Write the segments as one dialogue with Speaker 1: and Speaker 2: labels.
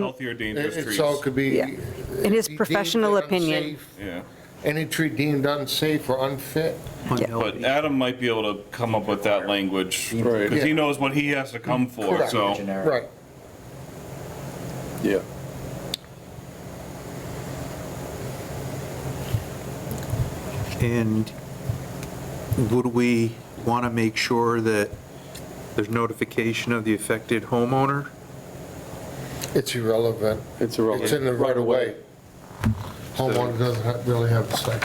Speaker 1: Healthy or dangerous
Speaker 2: It-
Speaker 1: trees?
Speaker 2: It's all could be.
Speaker 3: Yeah. In his
Speaker 2: deemed
Speaker 3: professional opinion.
Speaker 2: unsafe,
Speaker 1: Yeah,
Speaker 2: Any tree deemed unsafe or unfit.
Speaker 1: but Adam might be able to come up with that language, because he
Speaker 2: Yeah.
Speaker 1: knows what he has to come for,
Speaker 2: Correct.
Speaker 1: so.
Speaker 2: Right.
Speaker 4: Yeah.
Speaker 5: And would we want to make sure that there's notification of the affected homeowner?
Speaker 2: It's irrelevant.
Speaker 4: It's
Speaker 2: It's in the right of way. Homeowner doesn't have- really have to say.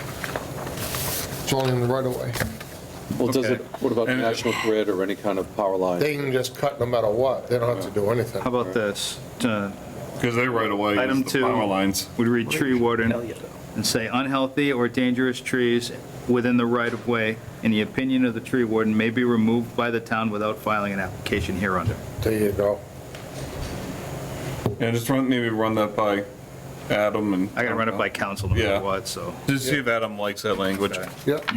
Speaker 2: It's only in the right of way.
Speaker 4: Well, does it, what about
Speaker 1: And-
Speaker 4: National Grid or any kind of power line?
Speaker 2: They can just cut no matter what. They don't have to do anything.
Speaker 6: How about this? Uh,
Speaker 1: Because they right away
Speaker 6: Item
Speaker 1: use the
Speaker 6: two.
Speaker 1: power lines.
Speaker 6: We'd read tree warden and say unhealthy or dangerous trees within the right-of-way, in the opinion of the tree warden, may be removed by the town without filing an application hereunder.
Speaker 2: There you go.
Speaker 1: And just run, maybe run that by Adam and.
Speaker 6: I gotta run it by council no
Speaker 1: Yeah.
Speaker 6: matter what, so,
Speaker 1: Just see if Adam likes that language.
Speaker 6: Okay.
Speaker 2: Yep.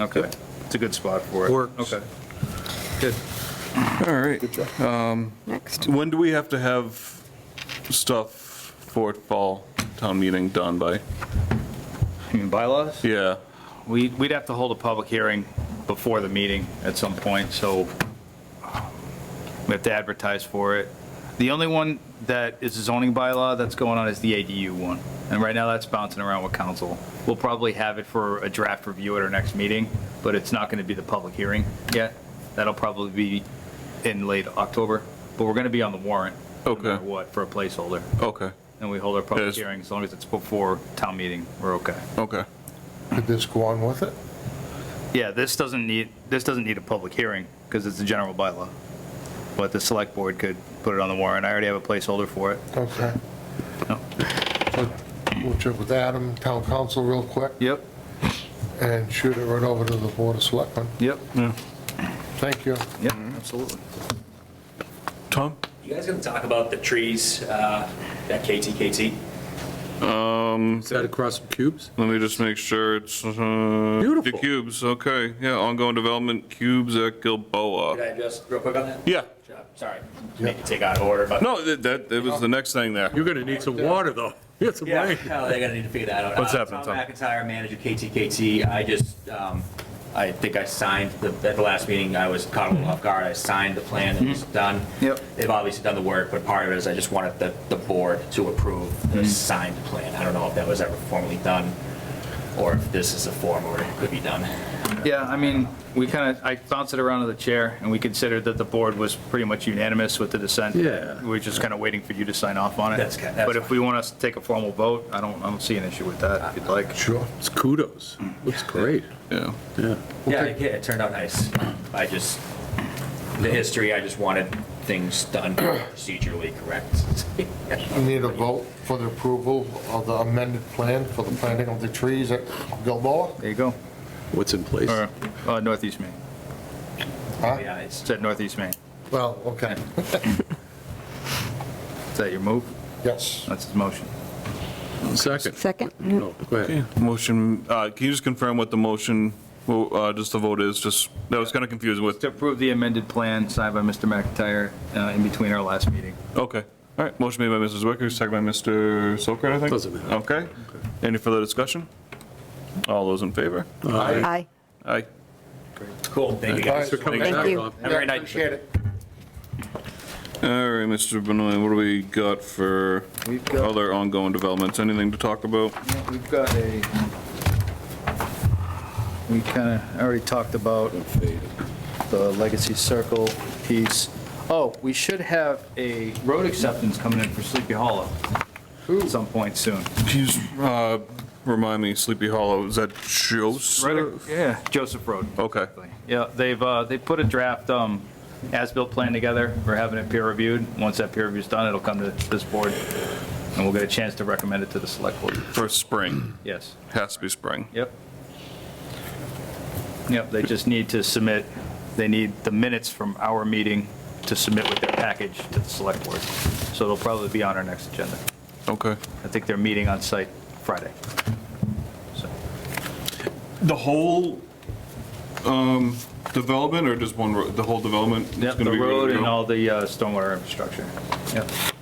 Speaker 6: okay. It's a good spot for it.
Speaker 5: Works.
Speaker 6: Okay.
Speaker 1: All right.
Speaker 3: Next.
Speaker 1: When do we have to have stuff for fall town meeting done by?
Speaker 6: You mean bylaws?
Speaker 1: Yeah,
Speaker 6: We, we'd have to hold a public hearing before the meeting at some point, so um, we have to advertise for it. The only one that is a zoning bylaw that's going on is the ADU one, and right now that's bouncing around with council. We'll probably have it for a draft review at our next meeting, but it's not going to be the public hearing yet. That'll probably be in late October, but we're going to be on the warrant. no
Speaker 1: Okay.
Speaker 6: matter What, for a placeholder,
Speaker 1: okay,
Speaker 6: and we hold our public
Speaker 1: Yes.
Speaker 6: hearing, as long as it's before town meeting, we're okay.
Speaker 1: okay.
Speaker 2: Could this go on with it?
Speaker 6: Yeah, this doesn't need, this doesn't need a public hearing, because it's a general bylaw. But the select board could put it on the warrant, I already have a placeholder for it.
Speaker 2: Okay.
Speaker 6: No.
Speaker 2: So We'll check with Adam, town council, real quick,
Speaker 6: Yep,
Speaker 2: and shoot it right over to the board of selectmen.
Speaker 6: yep,
Speaker 2: Thank you.
Speaker 6: yep, Mm-hmm, absolutely.
Speaker 1: Tom?
Speaker 7: You guys gonna talk about the trees uh, at KTKT?
Speaker 4: Is that across some cubes?
Speaker 1: Let me just make sure it's, uh.
Speaker 4: Beautiful.
Speaker 1: The cubes, okay, yeah, ongoing development, cubes at Gilboa.
Speaker 7: Could I just, real quick on that?
Speaker 1: Yeah,
Speaker 7: Sure, Sorry, make it take out of order, but.
Speaker 1: no, that- that, it was the next thing there.
Speaker 4: You're gonna need some water, though. You got some
Speaker 7: Yeah,
Speaker 4: rain.
Speaker 7: oh, they're gonna need to figure that out.
Speaker 1: What's
Speaker 7: Uh,
Speaker 1: happening, Tom?
Speaker 7: Tom McIntyre, manager KTKT. I just, um, I think I signed, the- at the last meeting, I was caught a little off guard. I signed the plan that was
Speaker 4: Mm-hmm.
Speaker 7: done.
Speaker 6: Yep.
Speaker 7: They've obviously done the work, but part of it is I just wanted the, the board to approve
Speaker 4: Mm-hmm.
Speaker 7: the signed plan. I don't know if that was ever formally done, or if this is a form where it could be done.
Speaker 6: Yeah, I mean, we kind of, I bounced it around to the chair, and we considered that the board was pretty much unanimous with the dissent.
Speaker 4: Yeah.
Speaker 6: We're just kind of waiting for you to sign off on it.
Speaker 7: That's ki- that's
Speaker 6: But if we want us to take a formal vote, I don't, I don't see an issue with that, if you'd like.
Speaker 2: Sure.
Speaker 4: It's kudos. Looks great.
Speaker 1: Yeah.
Speaker 4: Yeah.
Speaker 7: Yeah, it, it turned out nice. I just, the history, I just wanted things done procedurally correct.
Speaker 2: We need a vote for the approval of the amended plan for the planting of the trees at Gilboa.
Speaker 6: There you go.
Speaker 4: What's in place?
Speaker 6: Or, uh, Northeast Maine,
Speaker 7: Yeah, it's,
Speaker 6: it's at Northeast Maine.
Speaker 2: Well, okay,
Speaker 6: Is that your move?
Speaker 2: yes.
Speaker 6: That's his motion.
Speaker 4: Second.
Speaker 3: Second.
Speaker 4: No, go ahead.
Speaker 1: Motion, uh, can you just confirm what the motion, well, uh, just the vote is, just, that was kind of confusing with,
Speaker 6: To approve the amended plan signed by Mr. McIntyre uh, in between our last meeting.
Speaker 1: okay. All right, motion made by Mrs. Wicker, second by Mr. Sokrat, I think?
Speaker 4: Doesn't matter.
Speaker 1: Okay. Any further discussion? All those in favor?
Speaker 3: Aye.
Speaker 1: Aye.
Speaker 7: cool, thank you guys.
Speaker 4: They're coming
Speaker 1: Thank
Speaker 4: back,
Speaker 3: you.
Speaker 4: Rob.
Speaker 7: Have a great night.
Speaker 2: Appreciate it.
Speaker 1: All right, Mr. Benoit, what do we got for
Speaker 6: We've got-
Speaker 1: other ongoing developments? Anything to talk about?
Speaker 6: We've got a, we kind of already talked about the Legacy Circle piece. Oh, we should have a road acceptance coming in for Sleepy Hollow at some point soon.
Speaker 1: Please, uh, remind me, Sleepy Hollow, is that Joe's?
Speaker 6: Right, yeah, Joseph Road.
Speaker 1: Okay.
Speaker 6: Yeah, they've, uh, they put a draft, um, as-built plan together. We're having it peer reviewed. Once that peer review's done, it'll come to this board, and we'll get a chance to recommend it to the select board.
Speaker 1: For spring,
Speaker 6: Yes.
Speaker 1: has to be spring.
Speaker 6: Yep. Yep, they just need to submit, they need the minutes from our meeting to submit with their package to the select board. So it'll probably be on our next agenda.
Speaker 1: Okay.
Speaker 6: I think they're meeting on site Friday. So,
Speaker 1: The whole um, development, or just one, ro- the whole development? is
Speaker 6: Yep,
Speaker 1: gonna
Speaker 6: the
Speaker 1: be ready to
Speaker 6: road and
Speaker 1: go?
Speaker 6: all the uh, stormwater infrastructure. Yep.